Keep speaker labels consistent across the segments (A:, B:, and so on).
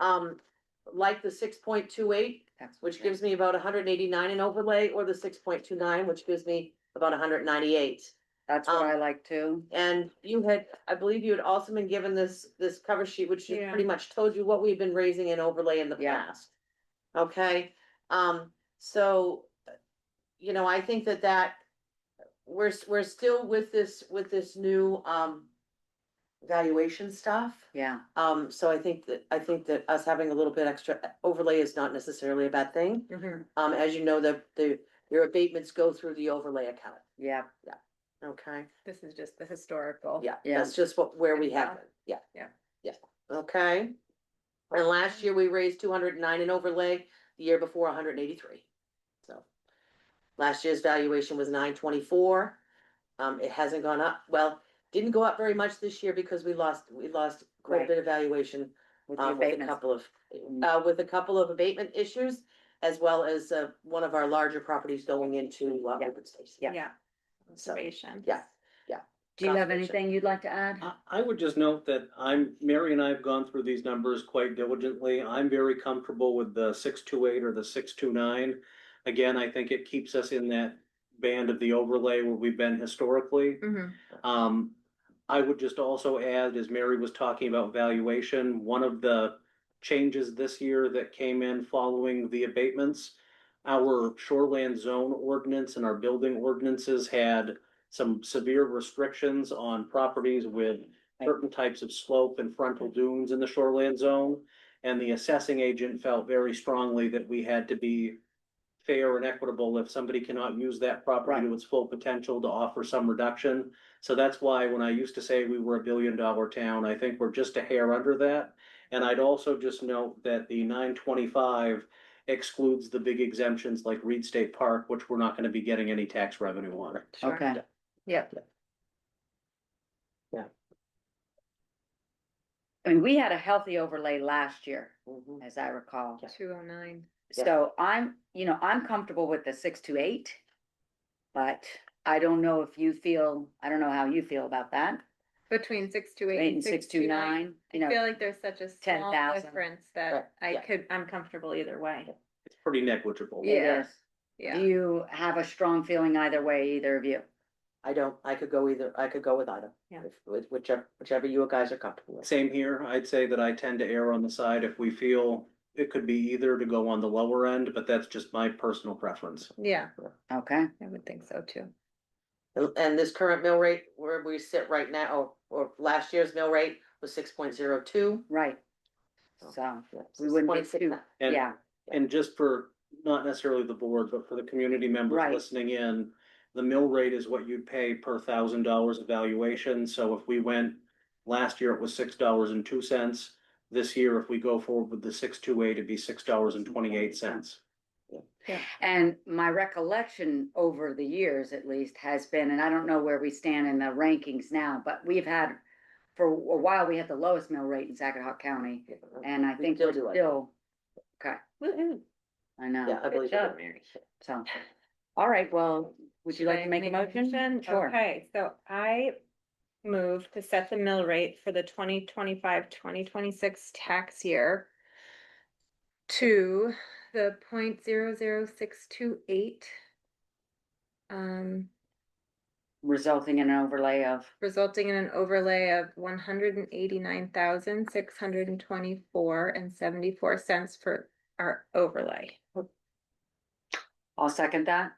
A: Um, like the six point two eight, which gives me about hundred and eighty-nine in overlay, or the six point two nine, which gives me about hundred and ninety-eight.
B: That's what I
A: um,
B: like too.
A: And you had, I believe you had also been given this, this cover sheet, which just
C: Yeah.
A: pretty much told you what we've been raising in overlay in the
B: Yeah.
A: past. Okay, um, so, you know, I think that that, we're, s- we're still with this, with this new, um, valuation stuff.
B: Yeah,
A: Um, so I think that, I think that us having a little bit extra uh, overlay is not necessarily a bad thing.
B: mm-hmm.
A: Um, as you know, the, the, your abatements go through the overlay account,
B: yeah.
A: okay?
C: This is just the historical.
A: Yeah,
B: Yeah.
A: that's just what, where
C: And
A: we have
C: now-
A: it, yeah.
C: Yeah.
A: Yeah, okay. And last year we raised two hundred and nine in overlay, the year before hundred and eighty-three. So. Last year's valuation was nine twenty-four. Um, it hasn't gone up, well, didn't go up very much this year because we lost, we lost quite a
B: Right.
A: bit of valuation.
B: With the
A: Um, with a
B: abatements.
A: couple of,
B: Mm.
A: uh, with a couple of abatement issues, as well as, uh, one of our larger properties going into, uh,
B: Yeah.
A: open space.
B: Yeah.
C: Yeah.
A: So,
C: Observation.
A: yeah.
B: Do you have
A: competition.
B: anything you'd like to add?
D: I, I would just note that I'm, Mary and I have gone through these numbers quite diligently. I'm very comfortable with the six two eight or the six two nine. Again, I think it keeps us in that band of the overlay where we've been historically.
B: Mm-hmm,
C: Mhm.
D: Um, I would just also add, as Mary was talking about valuation, one of the changes this year that came in following the abatements. Our shoreland zone ordinance and our building ordinances had some severe restrictions on properties with certain types of slope and frontal dunes in the shoreland zone. And the assessing agent felt very strongly that we had to be fair and equitable if somebody cannot use that property to its full potential to offer some reduction. So that's why when I used to say we were a billion dollar town, I think we're just a hair under that. And I'd also just note that the nine twenty-five excludes the big exemptions like Reed State Park, which we're not gonna be getting any tax revenue on.
C: Sure.
B: Okay,
C: Yep.
B: I mean, we had a healthy overlay last year,
A: Mhm.
B: as I recall.
A: Yeah.
C: Two oh nine.
A: Yeah.
B: So I'm, you know, I'm comfortable with the six to eight. But I don't know if you feel, I don't know how you feel about that,
C: Between six two eight
B: eight
C: and
B: six to nine,
C: I
B: you know.
C: feel like there's such a small
B: 10,000.
C: difference
A: Right,
C: that I
A: yeah.
C: could, I'm comfortable either way.
D: It's pretty negligible.
B: it
C: Yeah.
B: is. Do
C: Yeah.
B: you have a strong feeling either way, either of you?
A: I don't, I could go either, I could go with either.
C: Yeah.
A: If- With whichever, whichever you guys are comfortable with.
D: Same here, I'd say that I tend to err on the side if we feel it could be either to go on the lower end, but that's just my personal preference.
C: Yeah,
B: Okay,
C: I would think so too.
A: And- And this current mill rate where we sit right now, or, or last year's mill rate was six point zero two.
B: right. So, we wouldn't be too,
D: And-
B: yeah,
D: And just for, not necessarily the board, but for the community members
B: Right.
D: listening in, the mill rate is what you'd pay per thousand dollars of valuation, so if we went, last year it was six dollars and two cents. This year, if we go forward with the six two eight, it'd be six dollars and twenty-eight cents.
B: And my recollection over the years at least has been, and I don't know where we stand in the rankings now, but we've had. For a while, we had the lowest mill rate in Saginaw County and I
A: We
B: think
A: still
B: we're
A: do, I think.
B: still,
C: Woo-hoo.
B: I know,
A: Yeah, I believe. it.
C: job, Mary.
B: so. All right, well, would you
C: Should
B: like
C: I
B: to make a motion? Sure.
C: Okay, so I move to set the mill rate for the 2025-2026 tax year to the point zero zero six two eight. Um,
B: Resulting in an overlay of,
C: resulting in an overlay of one hundred and eighty-nine thousand, six hundred and twenty-four and seventy-four cents for our overlay.
B: I'll second that.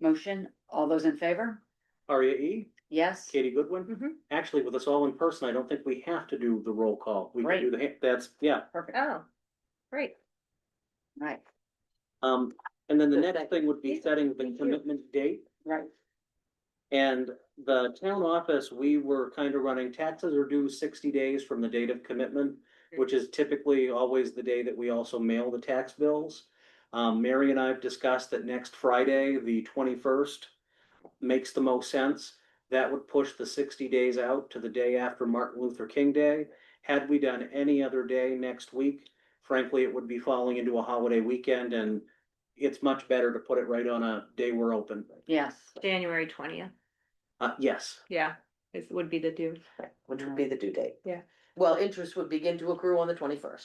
B: Motion, all those in favor?
D: Aria E,
B: Yes?
D: Katie Goodwin,
C: Mhm.
D: actually with us all in person, I don't think we have to do the roll call. We can do the, hand- that's, yeah,
B: Perfect,
C: Oh, great.
B: right,
D: um, and then the
A: Good,
D: next
A: thank
D: thing would be
C: Yeah,
D: setting the
C: thank you.
D: commitment date.
B: right,
D: And the town office, we were kind of running taxes are due sixty days from the date of commitment, which is typically always the day that we also mail the tax bills. Um, Mary and I have discussed that next Friday, the twenty-first, makes the most sense. That would push the sixty days out to the day after Martin Luther King Day. Had we done any other day next week, frankly, it would be falling into a holiday weekend and it's much better to put it right on a day we're open.
B: yes,
C: January twentieth,
D: Uh, yes.
C: yeah, is, would be the due.
A: Which would be the due date.
C: Yeah.
A: Well, interest would begin to accrue on the twenty-first.